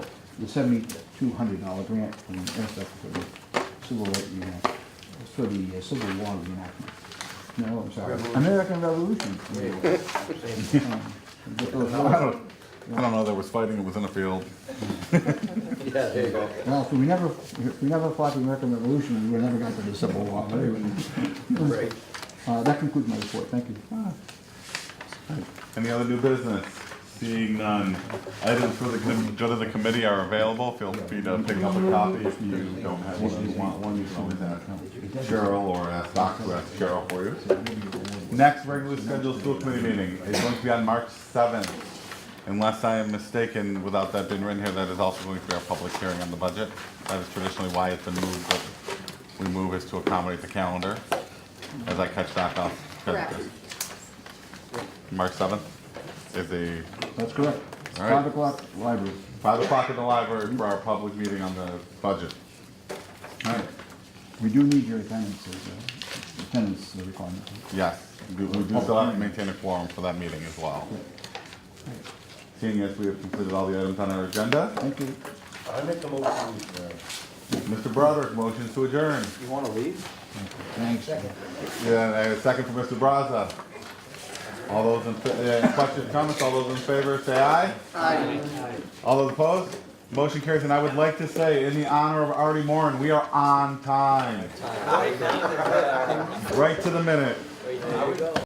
the seventy-two hundred dollar grant from NSF for the civil right reenact, for the uh, Civil War reenactment. No, I'm sorry, Revolution. American Revolution. Um, I don't know, there was fighting within a field. Yeah, there you go. Well, if we never, if we never fought the American Revolution, we would never got to the Civil War. but anyway. Right. Uh, that concludes my report, thank you. Ah, Any other new business? Seeing none. Items for the, com- judge of the committee are available. Feel free to pick up a copy if you don't have one, you want one, you can always ask Cheryl or ask Doc to ask Cheryl for you. Next regularly scheduled school committee meeting is going to be on March seventh. Unless I am mistaken, without that being written here, that is also going to be our public hearing on the budget. That is traditionally why it's been moved, but we move is to accommodate the calendar, as I catch Doc off. Correct. March seventh is the That's correct. All right. Five o'clock, library. five o'clock in the library for our public meeting on the budget. All right. We do need your attendance, as a- attendance requirement. Yes, we we do still have to maintain a quorum for that meeting as well. Seeing as we have completed all the items on our agenda, Thank you. I make a motion. uh, Mr. Broderick, motions to adjourn. You wanna leave? Thanks. Yeah, and I have a second for Mr. Brazza. All those in, fa- yeah, any questions, comments, all those in favor, say aye. Aye. All those opposed? Motion carries, and I would like to say, in the honor of Artie Moran, we are on time. Right to the minute.